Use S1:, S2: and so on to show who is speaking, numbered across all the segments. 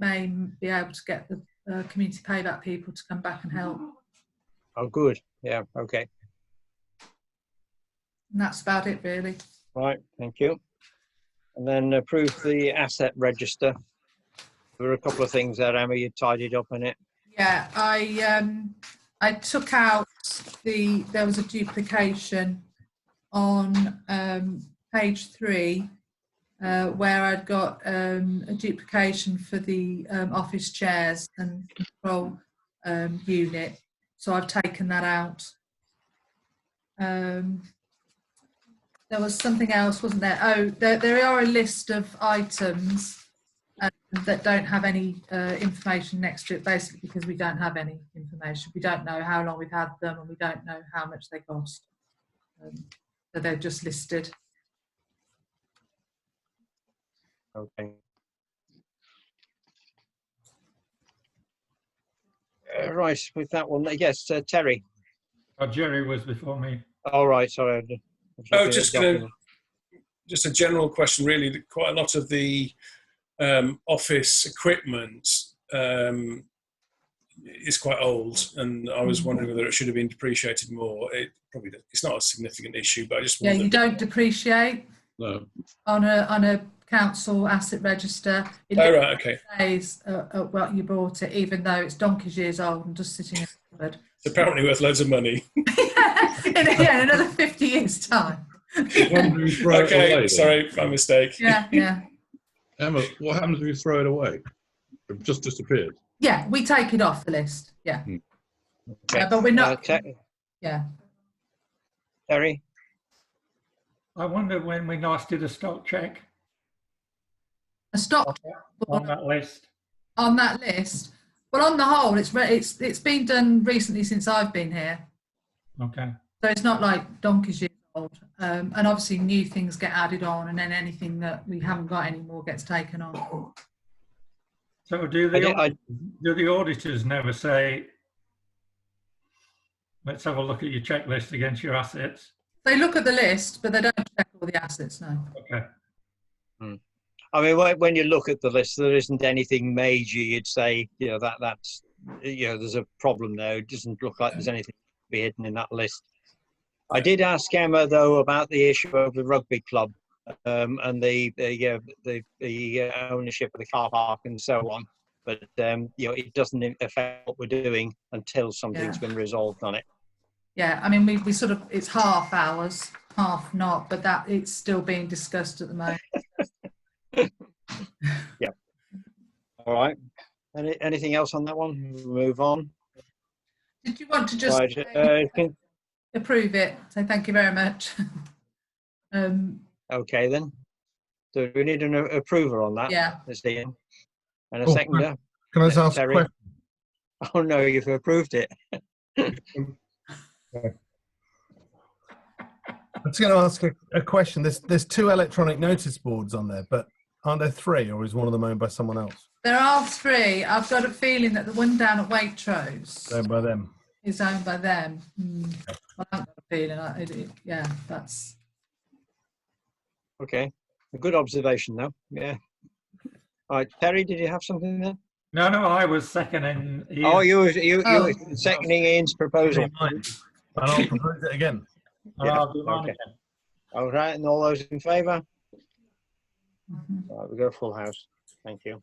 S1: may m- be able to get the uh, community payback people to come back and help.
S2: Oh, good. Yeah, okay.
S1: And that's about it, really.
S2: Right, thank you. And then approve the asset register. There were a couple of things there, Emma, you tidied up in it.
S1: Yeah, I um, I took out the there was a duplication on um, page three uh, where I'd got um, a duplication for the um, office chairs and control um, unit, so I've taken that out. Um, there was something else, wasn't there? Oh, there, there are a list of items that don't have any uh, information next to it, basically because we don't have any information. We don't know how long we've had them, and we don't know how much they cost. Um, so they're just listed.
S2: Okay. Uh, Right, with that one, yes, uh, Terry.
S3: Oh, Jerry was before me.
S2: All right, sorry. I d- I was
S4: Oh,
S2: looking at
S4: just
S2: the
S4: gonna-
S2: document.
S4: just a general question really that quite a lot of the um, office equipment um, is quite old and i
S1: Mm-hmm.
S4: was wondering whether it should have been depreciated more it probably it's not a significant issue but i just
S1: Yeah, you
S4: wondered
S1: don't depreciate
S4: no.
S1: on a on a council asset register. It
S4: oh right okay
S1: says uh, uh, what you bought it, even though it's donkey's years old and just sitting in a cupboard.
S4: it's apparently worth loads of money
S1: in, yeah, in another fifty years' time.
S5: What happens if you throw it away
S4: okay
S5: then?
S4: sorry my mistake
S1: Yeah, yeah,
S5: Emma, what happens if you throw it away? It just disappeared.
S1: yeah. We take it off the list. Yeah,
S2: Okay.
S1: Uh, but we're
S2: Uh,
S1: not.
S2: Te-
S1: Yeah.
S2: Terry,
S3: I wonder when we last did a stock check
S1: A stock
S3: on that list.
S1: on that list. But on the whole, it's re- it's it's been done recently since I've been here,
S3: Okay,
S1: so it's not like donkey's years old. Um, and obviously, new things get added on, and then anything that we haven't got anymore gets taken on.
S3: so do
S2: I
S3: the,
S2: di- I-
S3: do the auditors never say, let's have a look at your checklist against your assets?
S1: They look at the list, but they don't check all the assets now.
S3: Okay,
S2: I mean, when- when you look at the list, there isn't anything major you'd say, you know, that that's, you know, there's a problem there. It doesn't look like there's anything to be hidden in that list. I did ask Emma though about the issue of the rugby club um, and the the, uh, the the uh, ownership of the car park and so on. But um, you know, it doesn't affect what we're doing until something's been resolved on it.
S1: Yeah, I mean, we, we sort of it's half hours, half not, but that it's still being discussed at the moment.
S2: All right. Any, anything else on that one? Move on.
S1: Did you want to just
S2: right. Uh, can-
S1: approve it? So thank you very much. um,
S2: okay then. Do we need an a- approver on that?
S1: yeah,
S2: Ms. Dean. And a
S6: Oh,
S2: seconder?
S6: Can I just ask a
S2: Terry?
S6: question?
S2: Oh no, you've approved it.
S6: I'm just going to ask a, a question. There's there's two electronic notice boards on there, but aren't there three, or is one of them owned by someone else?
S1: there are three. I've got a feeling that the one down at Waitrose.
S6: Owned by them.
S1: is owned by them. Mm. Well, I've got a feeling, I- it- it- yeah, that's,
S2: Okay. A good observation though. Yeah. All right, Terry, did you have something there?
S3: no, no, I was seconding. Ian.
S2: Oh, you were- you you
S1: Oh.
S2: were seconding Ian's proposal.
S6: And I'll propose it again.
S3: Oh, I'll do mine
S2: okay.
S3: again.
S2: All right, and all those in favour?
S1: mm-hmm.
S2: All right, Uh, we go full house. Thank you.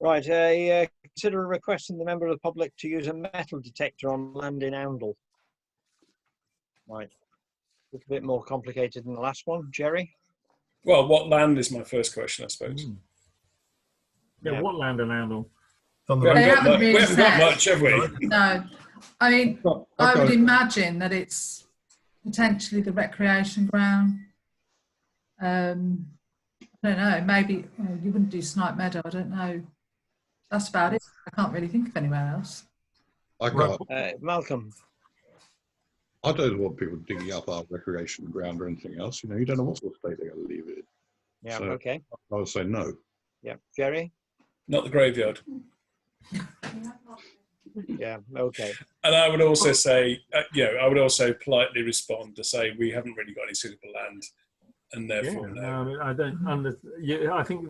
S2: Right, a uh, consider a request from the member of the public to use a metal detector on land in Oundle. Right. Look a bit more complicated than the last one, Jerry.
S4: well what land is my first question i suppose
S6: Mm.
S2: Yeah.
S3: Yeah, what land and handle?
S6: It's on the
S4: we haven't,
S1: They
S4: got
S1: haven't really
S4: much, we haven't got
S1: said.
S4: much have we
S1: no. I mean, I would
S6: Okay.
S1: imagine that it's potentially the recreation ground. Um, I don't know, maybe, oh, you wouldn't do Snipe Meadow, I don't know. That's about it. I can't really think of anywhere else.
S5: I can't,
S2: Uh, Malcolm.
S5: I don't want people digging up our recreation ground or anything else. You know, you don't know what sort of state they're going to leave it in.
S2: Yeah,
S5: So-
S2: okay.
S5: I would say no.
S2: Yeah, Jerry.
S4: not the graveyard
S2: Yeah, okay.
S4: And I would also say, uh, you know, I would also politely respond to say we haven't really got any suitable land
S7: and
S3: Yeah,
S7: therefore no.
S3: no, I mean, I don't. Under, yeah, I think